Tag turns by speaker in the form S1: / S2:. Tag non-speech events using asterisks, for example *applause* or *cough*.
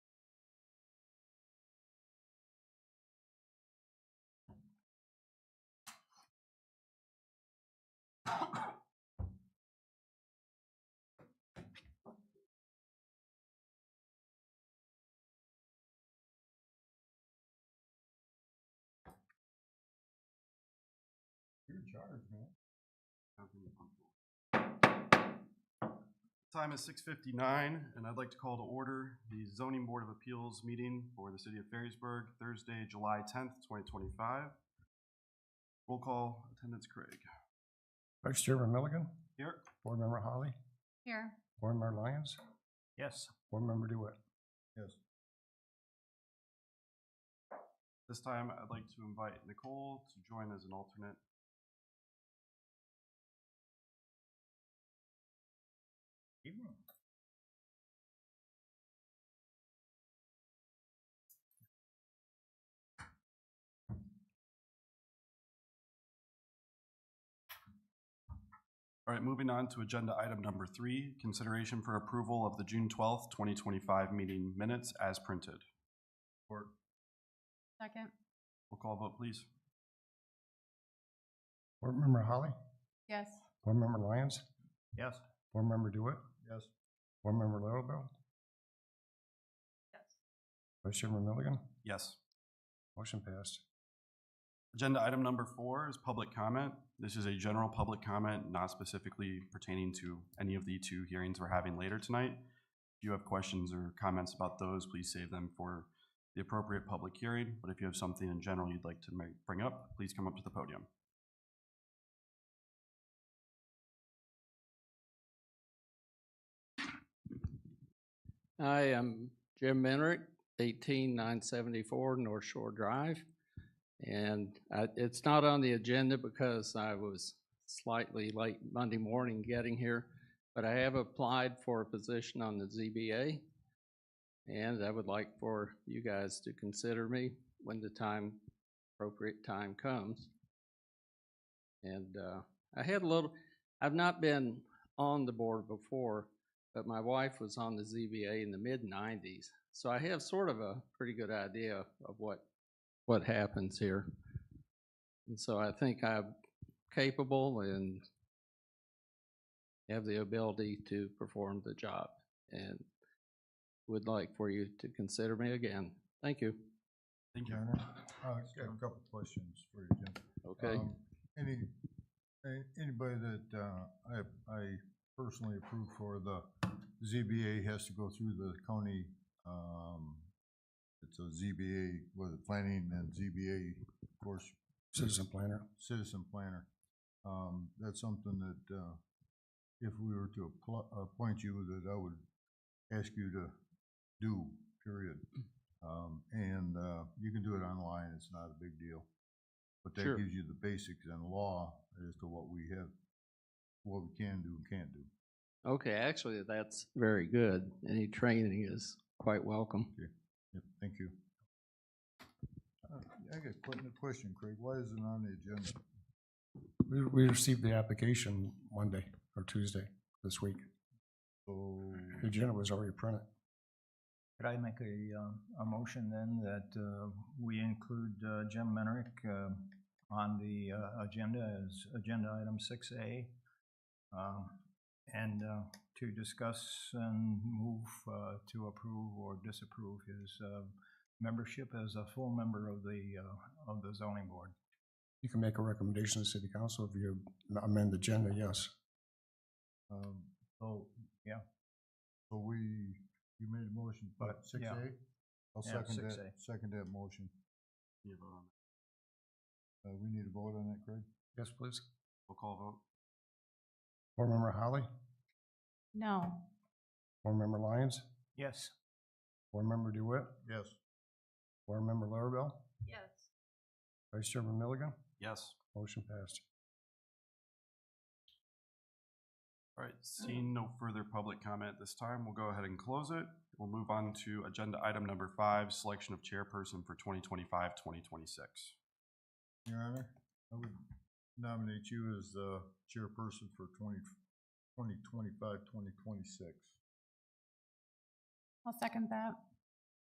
S1: You're in charge, man.
S2: Time is six fifty-nine, and I'd like to call to order the zoning board of appeals meeting for the city of Ferrisburg, Thursday, July tenth, twenty twenty-five. Roll call, attendance Craig.
S1: Vice Chairman Milligan,
S2: Here.
S1: Board Member Holly,
S3: Here.
S1: Board Member Lyons,
S2: Yes.
S1: Board Member Dewitt. Yes.
S2: This time, I'd like to invite Nicole to join as an alternate.
S1: Evening.
S2: All right, moving on to agenda item number three, consideration for approval of the June twelfth, twenty twenty-five meeting minutes as printed. Or,
S3: Second.
S2: roll call vote, please.
S1: Board Member Holly,
S3: Yes.
S1: Board Member Lyons,
S2: Yes.
S1: Board Member Dewitt. Yes. Board Member Littlefield,
S3: Yes.
S1: Vice Chairman Milligan,
S2: Yes.
S1: motion passed.
S2: Agenda item number four is public comment. This is a general public comment, not specifically pertaining to any of the two hearings we're having later tonight. If you have questions or comments about those, please save them for the appropriate public hearing. But if you have something in general you'd like to make, bring up, please come up to the podium.
S4: Hi, I'm Jim Menrick, eighteen nine seventy-four North Shore Drive. And I, it's not on the agenda because I was slightly late Monday morning getting here. But I have applied for a position on the ZBA. And I would like for you guys to consider me when the time, appropriate time comes. And, uh, I had a little, I've not been on the board before, but my wife was on the ZBA in the mid nineties. So I have sort of a pretty good idea of what, what happens here. And so I think I'm capable and have the ability to perform the job and would like for you to consider me again. Thank you.
S2: Thank you.
S5: Your Honor, uh, I got a couple of questions for you, Jim.
S4: Okay.
S5: Um, Any, a- anybody that uh, I, I personally approve for the ZBA has to go through the county, um, it's a ZBA, was it planning and ZBA, of course,
S1: Citizen Planner.
S5: citizen planner. Um, That's something that uh, if we were to appl- appoint you, that I would ask you to do, period. Um, And uh, you can do it online, it's not a big deal. But that
S4: Sure.
S5: gives you the basics and law as to what we have, what we can do and can't do.
S4: Okay, actually, that's very good. Any training is quite welcome.
S5: Yep, Thank you. Uh, I got a que- question, Craig, why is it on the agenda? *clears throat*
S1: We, we received the application Monday or Tuesday this week.
S5: So,
S1: The agenda was already printed.
S6: Mm-hmm. Could I make a, uh, a motion then that uh, we include uh, Jim Menrick uh, on the uh, agenda as agenda item six A? uh, And uh, to discuss and move uh, to approve or disapprove his uh, membership as a full member of the, uh, of the zoning board.
S1: You can make a recommendation to city council if you amend the agenda, yes.
S5: um,
S6: So, yeah,
S5: So we, you made a motion, but
S6: But,
S5: six
S6: yeah.
S5: A? I'll
S6: Yeah,
S5: second that,
S6: 6A.
S5: second that motion.
S2: Can you vote on that?
S5: Uh, we need a vote on that, Craig?
S1: Yes, please.
S2: Roll call vote?
S1: Board Member Holly,
S3: No.
S1: Board Member Lyons,
S6: yes.
S1: Board Member Dewitt,
S5: Yes.
S1: Board Member Larrabell,
S3: Yes.
S1: Vice Chairman Milligan,
S2: Yes.
S1: motion passed.
S2: All right, seeing no further public comment at this time, we'll go ahead and close it. We'll move on to agenda item number five, selection of chairperson for 2025-2026.
S5: Your Honor, I would nominate you as the chairperson for twenty, twenty twenty-five, twenty twenty-six.
S3: I'll second that.